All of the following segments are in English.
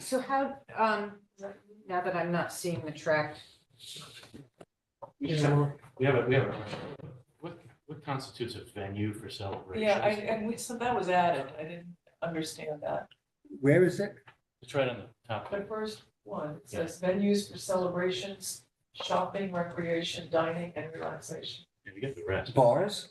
So how, um, now that I'm not seeing the track, We just have, we have, a- we have, a- what, what constitutes a venue for celebrations? Yeah, I, and we, so that was added, I didn't understand that. Where is it? It's right on the top. The first one it says venues for celebrations, shopping, recreation, dining, and relaxation. Yeah, You get the rest. Bars?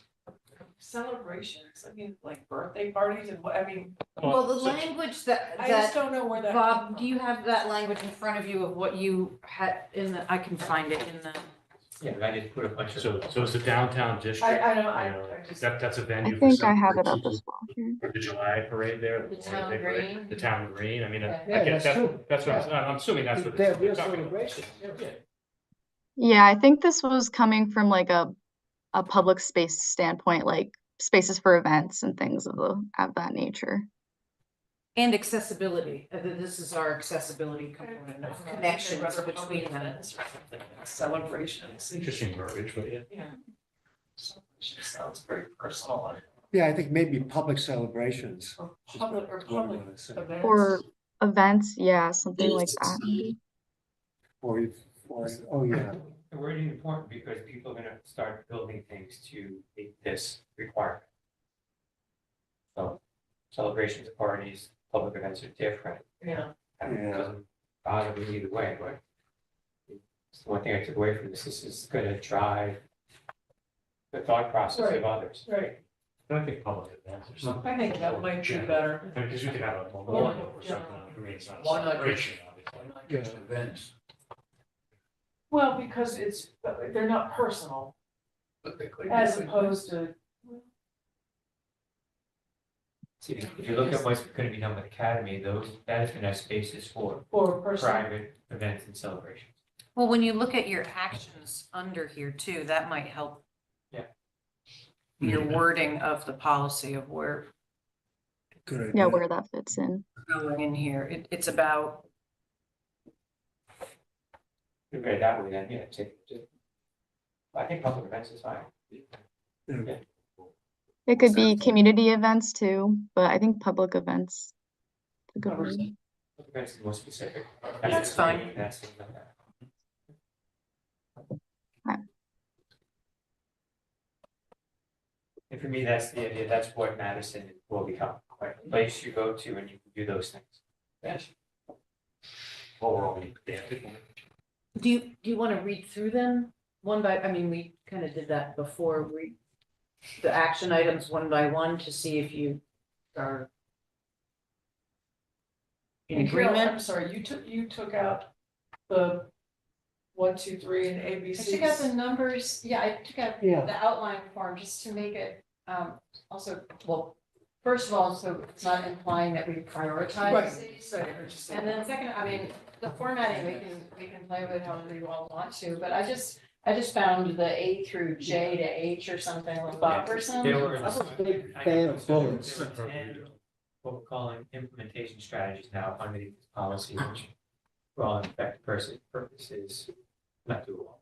Celebrations, I mean, like birthday parties and what, I mean, well, the so- language that, I just that, don't know where that. Bob, do you have that language in front of you of what you had in the, I can find it in the. Yeah, I just put a bunch of. So, so it's the downtown district. I, I don't, you I, know, I just. That, that's a I venue. for think I have it up celebrations. as well here. For the July parade there. The Memorial town Day parade, green. The town green, I mean, I Yeah, I guess that's that's, true. that's what I'm, I'm assuming that's what. They're they're real talking about. celebrations. Yeah. Yeah, I think this was coming from like a a public space standpoint, like spaces for events and things of the of that nature. And accessibility, uh, th- this is our accessibility I don't know, component I of think connections rather between public them. events or something, Celebrations. Interesting verbiage, but yeah. Yeah. Celebration Sounds very personal. Yeah, I think maybe public celebrations. Or is public, or what I public wanna say. events. Or events, yeah, something like that. Or, if- or, oh, yeah. The wording is important because people are gonna start building things to meet this requirement. So celebrations, parties, public events are different. Yeah, I mean, it doesn't bother me either way, but it's the one thing I took away from this, this is gonna drive the thought process Right. of others. right. I don't think public events or something. I think that might be better. I mean, because you could have a memorial or something on the green, it's not a Why not just- celebration, obviously. Just events, Well, because it's, they're not personal but they could. as opposed to, See, If you look at what's gonna be done with Academy, those, that is gonna have spaces for for personal. private events and celebrations. Well, when you look at your actions under here too, that might help. Yeah. Your wording of the policy of where Good Yeah, idea. where that fits in. going in here, it, it's about If you read it that way, then, yeah, take, just. I think public events is fine. Yeah. It could be community events too, but I think public events. is a good word. Public events is more specific. That's fine. That's something like that. Right. And for me, that's the idea, that's what Madison will become, like, a place you go to and you can do those things. Overall, yeah, people- Do you, do you want to read through them one by, I mean, we kind of did that before, read the action items one by one to see if you are in And Carol, I'm agreement? sorry, you took, you took out the one, two, three and A, B, I C. took out the numbers, yeah, I took out Yeah. the outline form just to make it, um, also, well, first of all, so it's not implying that we Right, prioritize these. so you're just- And then second, I mean, the formatting, we can, we can play with however you all want to, but I just, I just found the A through J to H or something with Bob or They something. were. I was a big fan of bullets. What we're calling implementation strategies now under these policy, which for all effective person purposes, not doable.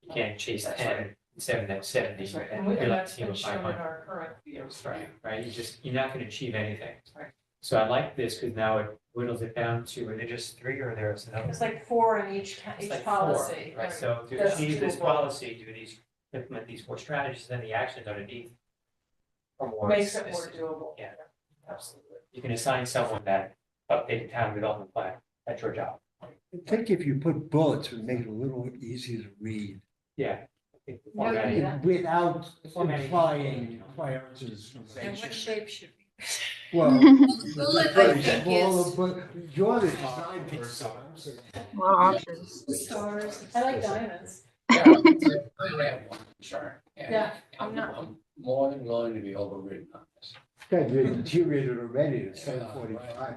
You can't chase That's ten, seven, that's seventy. That's right, and we, you're and like that's team been of shown in 500. our current, you know, Right, right, you just, you're not gonna achieve anything. Right. So I like this, because now it whittles it down to, are there just three or there's another? It's like four in each, It's like each four, policy. Right, so to That's achieve this doable. policy, do these, implement these four strategies, then the actions underneath. Or more. makes it more specific. doable. Yeah. Absolutely. You can assign someone that updated town development plan, that's your job. I think if you put bullets, it would make it a little easier to read. Yeah. I think the No, you formatting- Yeah. Without Formatting. implying prioritization. shape should we? Well. Bullet, I think, Well, is- but You're the design person. A lot of options. Stars, I like diamonds. Sure. Yeah, I'm not- More than willing to be overridden on this. Yeah, you deteriorated already, it's seven forty-five.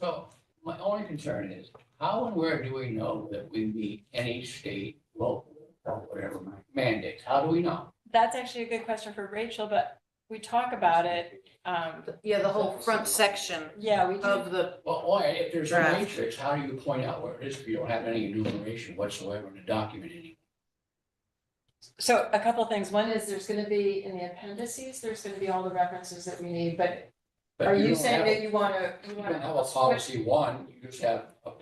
So my only concern is, how and where do we know that we meet any state, local, or whatever mandates? How do we know? That's actually a good question for Rachel, but we talk about it, um, Yeah, the whole front section yeah, we do. of the, Well, why, if there's a Draft. matrix, how do you point out where it is if you don't have any enumeration whatsoever in the document anymore? So a couple of things. One is there's gonna be in the appendices, there's gonna be all the references that we need, but But are you don't have saying a- that you wanna, you You don't wanna? have a policy one, you just have